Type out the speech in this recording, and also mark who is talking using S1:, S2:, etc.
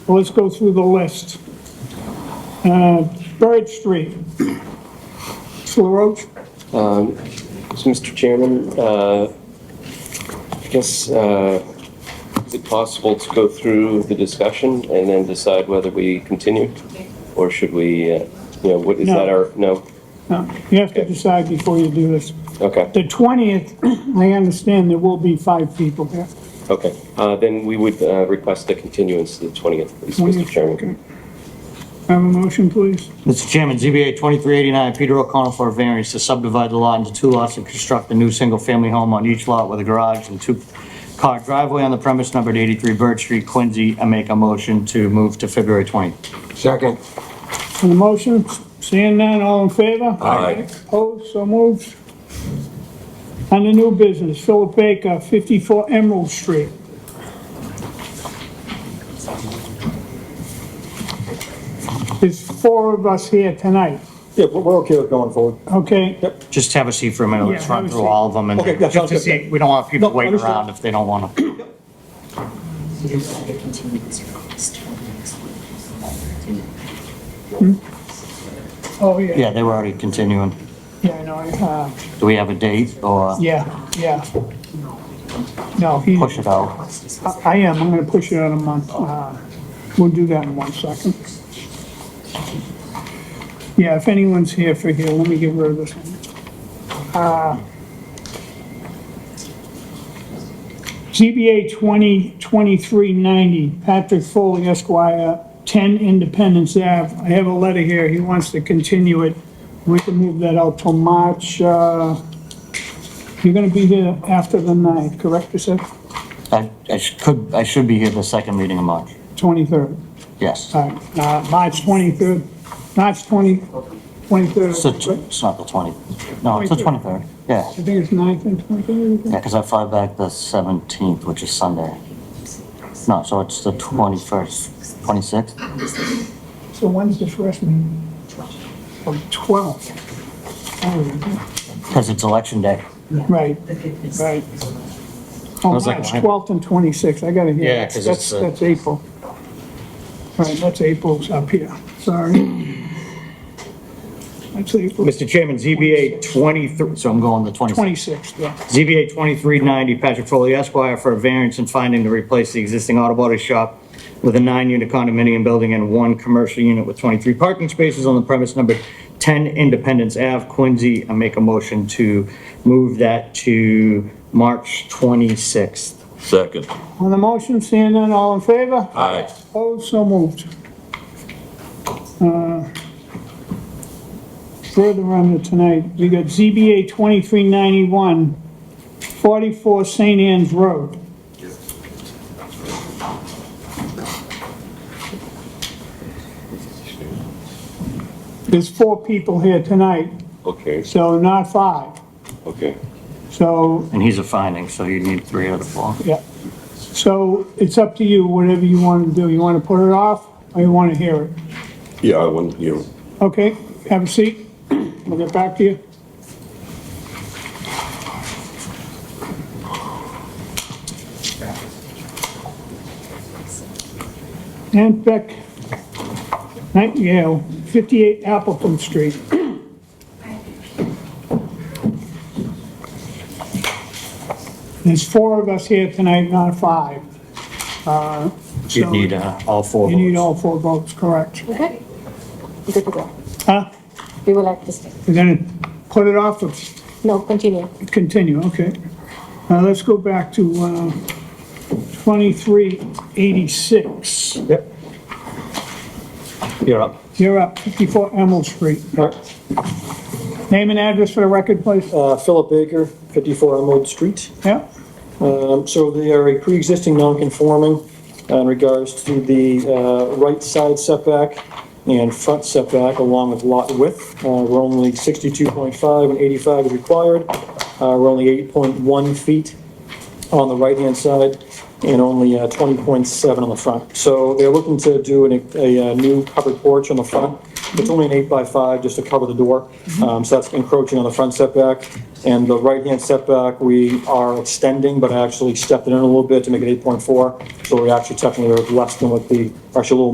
S1: Well, Let's go through the list. Uh, Bird Street. Mr. LaRoche,
S2: So, Mr. Chairman, uh, I guess, uh, is it possible to go through the discussion and then decide whether we continue? Or should we, uh, you know, what, is that
S1: No.
S2: our, no?
S1: no, uh, you have to decide before you do this.
S2: Okay,
S1: The 20th, I understand there will be five people there.
S2: okay. Uh, Then we would uh, request a continuance to the 20th, please, Mr.
S1: 20th.
S2: Chairman.
S1: Have a motion, please?
S3: Mr. Chairman, ZBA 2389, Peter O'Connell for a variance to subdivide the lot into two lots and construct a new single-family home on each lot with a garage and two-car driveway on the premise numbered 83 Bird Street, Quincy. I make a motion to move to February 20th.
S4: Second.
S1: On the motion, seeing none, all in favor?
S4: Aye.
S1: Opposed, so moved. On the new business, Philip Baker, 54 Emerald Street. There's four of us here tonight,
S5: Yeah, we're we're okay with going forward.
S1: okay?
S3: Just have a seat for a minute.
S1: Yeah,
S3: Let's
S1: have
S3: run
S1: a
S3: through
S1: seat.
S3: all of them and
S5: Okay, that
S3: just to
S5: sounds good.
S3: see, we don't want people
S5: No,
S3: waiting
S5: understood.
S3: around if they don't want to.
S6: You don't have to continue this request till next week.
S1: Oh, yeah,
S3: Yeah, they were already continuing.
S1: yeah, I know, uh,
S3: Do we have a date or
S1: yeah, yeah. No, he,
S3: push it out?
S1: I I am, I'm gonna push it out a month. Uh, We'll do that in one second. Yeah, if anyone's here for here, let me get rid of this one. Uh, ZBA 202390, Patrick Foley Esquire, 10 Independence Ave. I have a letter here, he wants to continue it. We can move that out till March, uh, you're gonna be here after the 9th, correct, you said?
S3: I I sh- could, I should be here the second meeting of March.
S1: 23rd.
S3: Yes.
S1: All right, uh, March 23rd, March 20, 23rd.
S3: It's the t- it's not the 20th. No, it's the 23rd. Yeah.
S1: I think it's 9th and 23rd.
S3: Yeah, because I fly back the 17th, which is Sunday. No, so it's the 21st, 26th?
S1: So when's the first meeting? Oh, 12th. Oh,
S3: Because it's election day.
S1: Right, right. Oh,
S3: I was like,
S1: March
S3: why-
S1: 12th and 26th, I gotta hear.
S3: Yeah,
S1: that.
S3: 'cause
S1: That's-
S3: it's, uh,
S1: That's April. All right, that's April's up here, sorry. That's April,
S3: Mr. Chairman, ZBA 23, so I'm going the 26th.
S1: 26th, yeah.
S3: ZBA 2390, Patrick Foley Esquire, for a variance and finding to replace the existing auto body shop with a nine-unit condominium building and one commercial unit with 23 parking spaces on the premise number 10 Independence Ave, Quincy. I make a motion to move that to March 26th.
S4: Second.
S1: On the motion, seeing none, all in favor?
S4: Aye.
S1: Opposed, so moved. Uh, Further on to tonight, we got ZBA 2391, 44 St. Anne's Road. There's four people here tonight,
S2: Okay,
S1: so not five.
S2: okay.
S1: So,
S3: And he's a finding, so you need three out of four.
S1: yeah. So it's up to you, whatever you want to do. You want to put it off or you want to hear it?
S7: Yeah, I want, you know,
S1: Okay, have a seat. We'll get back to you. And Beck Nightingale, 58 Appleton Street. There's four of us here tonight, not five. Uh,
S3: You'd
S1: so
S3: need uh, all four
S1: You need
S3: votes.
S1: all four votes, correct.
S6: Okay. Good to go.
S1: Huh?
S6: We will act this. way.
S1: You're gonna put it off or
S6: No, continue.
S1: continue, okay. Now, let's go back to uh, 2386.
S5: Yep.
S3: You're up.
S1: You're up, 54 Emerald Street.
S5: All right.
S1: Name and address for the record,
S3: Oh.
S1: please.
S5: Uh, Philip Baker, 54 Elmwood Street.
S1: Yeah,
S5: Um, So they are a pre-existing non-conforming uh, in regards to the uh, right side setback and front setback along with lot width. Uh, We're only 62.5 and 85 is required. Uh, We're only 8.1 feet on the right-hand side and only uh, 20.7 on the front. So they're looking to do an- a uh, new covered porch on the front It's only an eight by five, just to cover the door, um, so that's encroaching on the front setback. And the right-hand setback, we are extending, but I actually stepped it in a little bit to make it eight point four, so we actually technically are less than what the, actually a little